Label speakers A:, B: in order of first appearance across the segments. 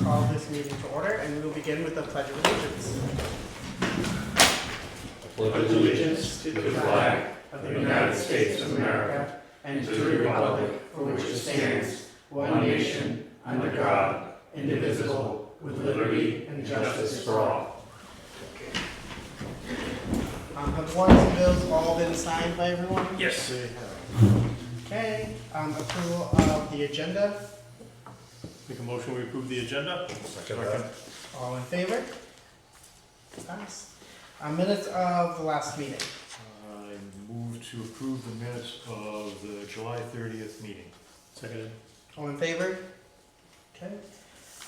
A: call this meeting to order, and we will begin with the Pledge of Allegiance.
B: pledge allegiance to the flag of the United States of America and to the republic for which it stands, one nation, under God, indivisible, with liberty and justice for all.
A: Um, Have warrants and bills all been signed by everyone?
B: Yes.
A: Okay, um, approval of the agenda,
C: Make a motion, we approve the agenda?
A: all in favor? Pass. Uh, Minutes of the last meeting,
D: I move to approve the minutes of the July 30th meeting.
C: Seconded.
A: all in favor? Okay.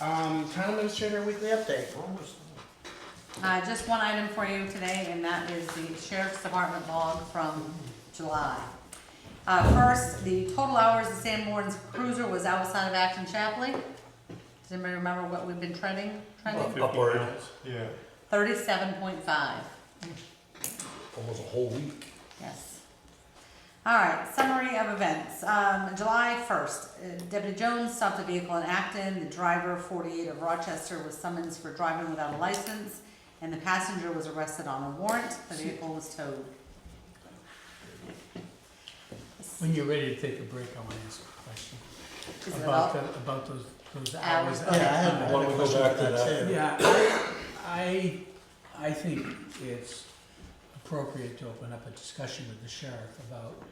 A: Um, Town Administrator Weekly Update.
E: Uh, just one item for you today, and that is the sheriff's department log from July. Uh, first, the total hours of Sam Warren's cruiser was outside of Acton Chapley. Does anybody remember what we've been trending, trending?
C: Upward.
D: Yeah.
E: Thirty-seven point five,
F: Almost a whole week.
E: yes. All right, summary of events. Um, July first, uh, Deputy Jones stopped a vehicle in Acton. The driver, forty-eight of Rochester, was summoned for driving without a license, and the passenger was arrested on a warrant. The vehicle was towed.
G: When you're ready to take a break, I want to ask a question
E: Is it
G: about,
E: up?
G: the- about those, those
E: Hours,
A: Yeah,
G: hours.
A: I had
F: Why don't
A: a
F: we go
A: question
F: back
A: about
F: to
A: that
F: that?
A: too.
G: Yeah, I, I I think it's appropriate to open up a discussion with the sheriff about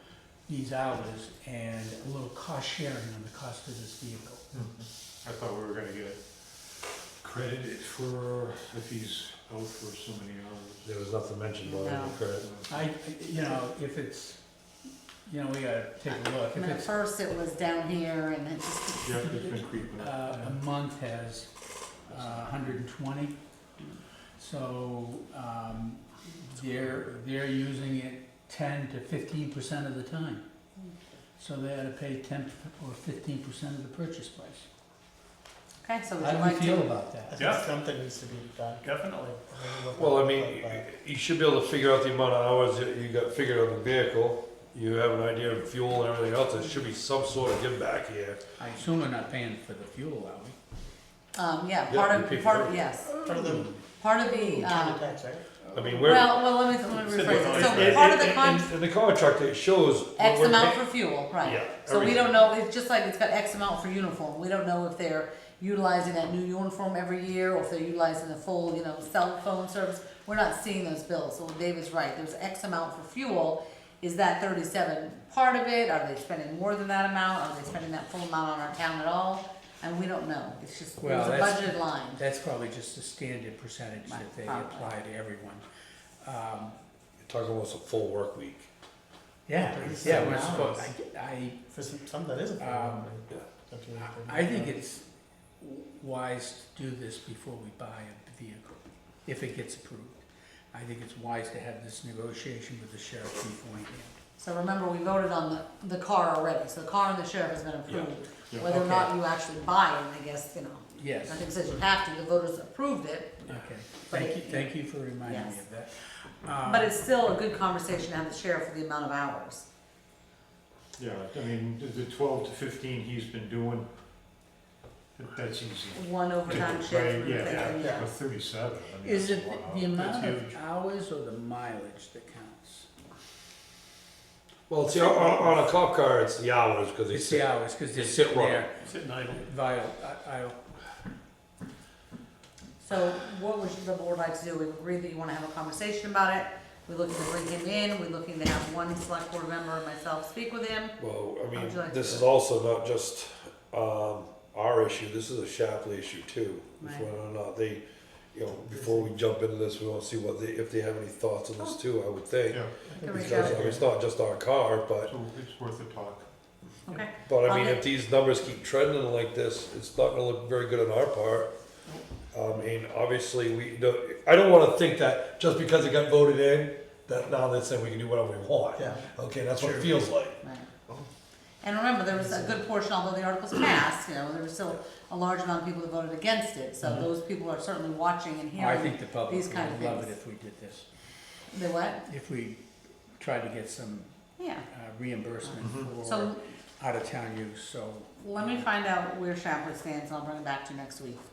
G: these hours and a little cost sharing on the cost of this vehicle.
F: Mm-hmm.
D: I thought we were gonna get credited for if he's out for so many hours.
F: There was nothing mentioned about
E: No.
F: it, correct?
G: I, you know, if it's, you know, we gotta take a look.
E: I
G: If
E: mean, at
G: it's,
E: first it was down here and then just,
D: Yeah, it's been creeping
G: uh,
D: up.
G: a month has uh, 120. So um, they're, they're using it 10 to 15% of the time. So they ought to pay 10 or 15% of the purchase price.
E: okay, so would
G: How
E: you
G: do we
E: like
G: feel
E: to?
G: about
A: I
G: that?
A: think
C: Yeah.
A: something needs to be done.
C: Definitely.
F: Well, I mean, you should be able to figure out the amount of hours that you got figured on the vehicle. You have an idea of fuel and everything else. There should be some sort of give back here.
G: I assume we're not paying for the fuel, are we?
E: Um, yeah,
F: Yeah,
E: part
F: we
E: of,
F: pick
E: part
F: it
E: of,
F: up.
E: yes,
A: For the
E: part of the,
A: county
E: um,
A: tax, right?
F: I mean, where,
E: well, well, let me, let me
C: Said
E: rephrase
C: we're
E: it. So
C: not-
E: part of the
C: and-
E: con,
F: in the contract, it shows. what
E: X
F: we're
E: amount
F: paying.
E: for fuel,
F: Yeah,
E: right? So we
F: everything.
E: don't know, it's just like it's got X amount for uniform. We don't know if they're utilizing that new uniform every year or if they're utilizing the full, you know, cell phone service. We're not seeing those bills. So David's right, there's X amount for fuel. Is that thirty-seven part of it? Are they spending more than that amount? Are they spending that full amount on our town at all? And we don't know. It's just, it was
G: Well,
E: a
G: that's-
E: budgeted line.
G: That's probably just the standard percentage that they
E: Probably.
G: apply to everyone. Um,
F: You're Talking almost a full work week.
G: Yeah,
A: Thirty
G: yeah,
A: seven
G: we're
A: hours.
G: supposed, I, I
A: For some, some that isn't.
G: Um,
F: yeah.
G: I think it's wise to do this before we buy a vehicle, if it gets approved. I think it's wise to have this negotiation with the sheriff beforehand.
E: So remember, we voted on the, the car already, so the car and the sheriff has been approved.
D: Yeah.
E: Whether or not you actually buy it, I guess, you know,
G: Yes,
E: nothing says you have to, the voters approved it,
G: okay. Thank you, thank you for reminding me
E: Yes.
G: of that. Um,
E: but it's still a good conversation to have the sheriff for the amount of hours.
D: Yeah, I mean, the- the 12 to 15 he's been doing, that- that's easy.
E: One overtime shift.
D: Right,
E: we
D: yeah,
E: think,
D: yeah,
E: yeah.
D: but 37. I mean,
G: Is
D: that's
G: it
D: a lot.
G: the amount
D: That's
G: of
D: huge.
G: hours or the mileage that counts?
F: Well, see, on, on on a cop car, it's the hours because they
G: It's the
F: sit.
G: hours, because
F: They
G: they're
F: sit wrong.
C: Sitting idle.
G: Vital, I, I,
E: So what would the board like to do? We agree that you wanna have a conversation about it. We're looking to bring him in, we're looking to have one select board member and myself speak with him.
F: Well, I mean,
E: would you like
F: this
E: to-
F: is also not just um, our issue. This is a Shapley issue too. If
E: Right.
F: Whether or not they, you know, before we jump into this, we want to see what they, if they have any thoughts on this
E: Oh.
F: too. I would think
D: Yeah,
E: Can we
F: because I mean, it's not just our car, but
D: so it's worth a talk.
E: Okay,
F: but I
E: On
F: mean,
E: the-
F: if these numbers keep trending like this, it's not going to look very good on our part. I mean, obviously, we don't. I don't want to think that just because it got voted in, that now they're saying we can do whatever we want.
A: Yeah.
F: Okay, that's what it feels like.
E: Right. And remember, there was a good portion, although the article's passed, you know, there was still a large amount of people that voted against it, so
D: Mm-hmm.
E: those people are certainly watching and
G: I
E: hearing.
G: think the public
E: these kind of
G: would love it
E: things.
G: if we did this.
E: The what?
G: If we tried to get some
E: Yeah,
G: uh, reimbursement for
E: so
G: out-of-town use, so.
E: let me find out where Shapley stands, and I'll bring it back to you next week.